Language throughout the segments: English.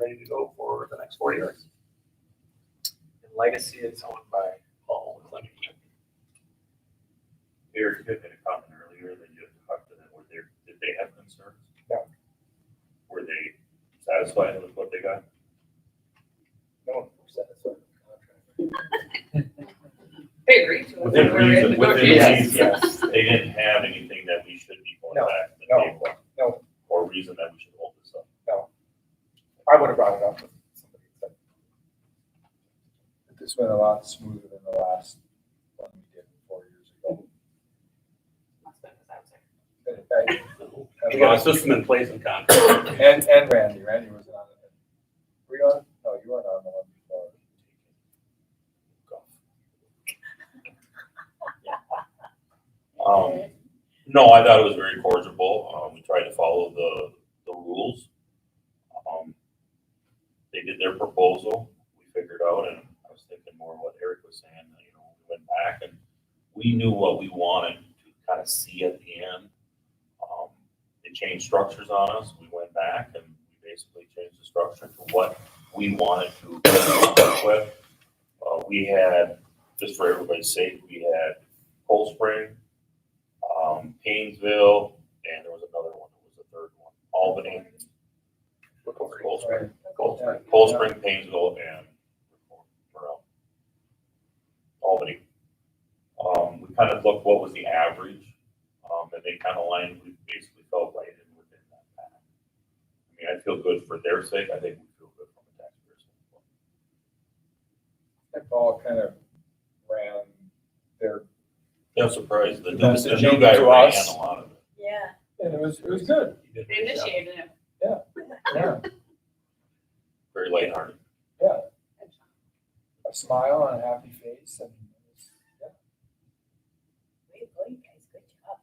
ready to go for the next four years. And Legacy is owned by Paul Clement. Eric, you had made a comment earlier that you had talked to them, were there, did they have concerns? No. Were they satisfied with what they got? No one said it's a contract. They agreed to it. Within We're in reason, within Yes. reason. Yes, They didn't have anything that we should be going No, back to the no, table? no. Or reason that we should hold this up? I would have brought it up with somebody, but This went a lot smoother than the last one we did four years ago. Husband was out there. In fact, We got a system in place and contract. And, and Randy, Randy was on it. Were you on? No, you weren't on the one before. Um, no, I thought it was very cordial. Um, we tried to follow the, the rules. Um, they did their proposal. We figured out, and I was thinking more of what Eric was saying. that, You know, we went back and we knew what we wanted to kind of see at the end. Um, they changed structures on us. We went back and we basically changed the structure to what we wanted to work with. Uh, we had, just for everybody's sake, we had Cold Spring, um, Painesville, and there was another one, it was the third one, Albany, Cold Spring, Cold Spring, Cold Spring, Painesville, and Monroe. Albany. Um, we kind of looked what was the average, um, and they kind of lined, we basically felt right in within that pattern. I mean, I feel good for their sake, I think we feel good from a taxpayer standpoint. And Paul kind of ran their, I'm surprised, the, the The new messaging guy to ran us. a lot of it. Yeah, and it was, it was good. they initiated him. Yeah, Very lighthearted. yeah. A smile and a happy face and it was- yeah. Way to go, you guys, good job.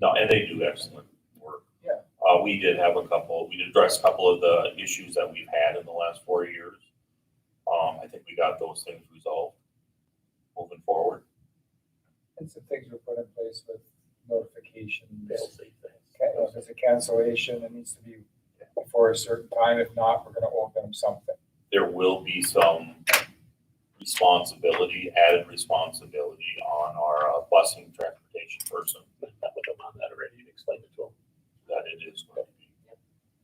No, and they do excellent work. Yeah. Uh, we did have a couple, we did address a couple of the issues that we've had in the last four years. Um, I think we got those things resolved moving forward. and some things were put in place with notifications. They'll say things. Ca- If it's a cancellation, it needs to be before a certain time. If not, we're gonna owe them something. There will be some responsibility, added responsibility on our uh, busing transportation person. I've met with him on that already and explained it to him. That it is going to be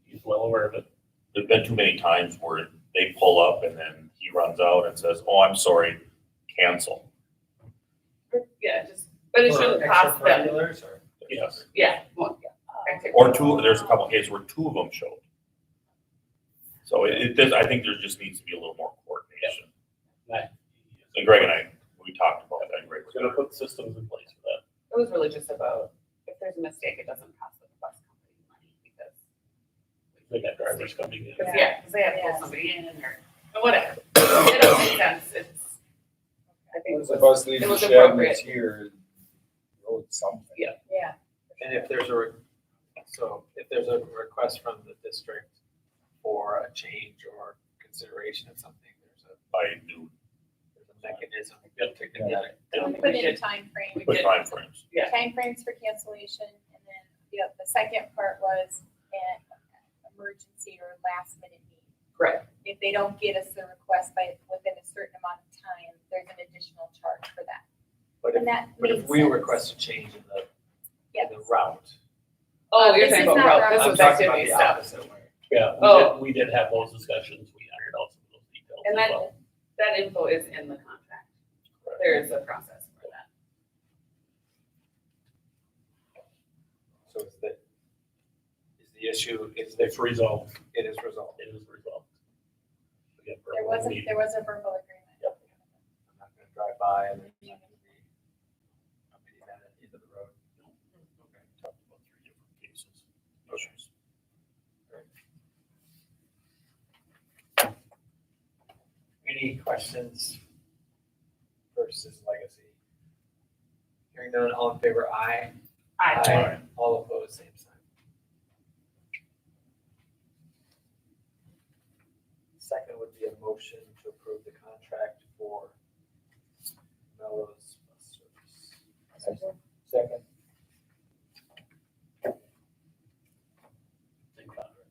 He's well aware of it. there's been too many times where they pull up and then he runs out and says, oh, I'm sorry, cancel. Yeah, just, but it shouldn't cost them. or? Yes. Yeah, well, yeah. Oh, Activity. Or two, there's a couple cases where two of them showed. So it, it, does- I think there just needs to be a little more coordination. And Greg and I, we talked about that, Greg. was We're gonna gonna- put systems in place for that. It was really just about, if there's a mistake, it doesn't cost the bus company money because. They got drivers coming in. Because, yeah, because they have to pull somebody in and or, or whatever. It doesn't make sense, it's, I think. Once the bus leaves it the was shed and appropriate. it's here, we owe it something. Yeah. Yeah. And if there's a, re- so if there's a request from the district for a change or consideration of something, there's a, I do, there's a mechanism to get it. And We we put in a we did- timeframe, put timeframes. Yeah. timeframes for cancellation, and then, you know, the second part was an emergency or last minute need. Correct. If they don't get us the request by, within a certain amount of time, there's an additional charge for that. But And if, that but if made we sense. request a change in the, Yes. in the route. Oh, you're This talking is about not route, this route. I'm was talking about activity the stuff. opposite way. Yeah, we Oh. did, we did have those discussions. We ironed out some of those details And as that, well. that info is in the contract. There is a process for that. So is the, is the issue, is that It's resolved. it is resolved? It is resolved. Again, for There a was, a meeting. there was a verbal agreement. I'm not gonna drive by and there's not gonna be a mini van at the end of the road. Mm-hmm. Okay. Talked about three different cases, issues. Any questions versus legacy? Hearing none, all in favor, aye. I, Aye. All opposed, same sign. Second would be a motion to approve the contract for Melrose Bus Service. Second.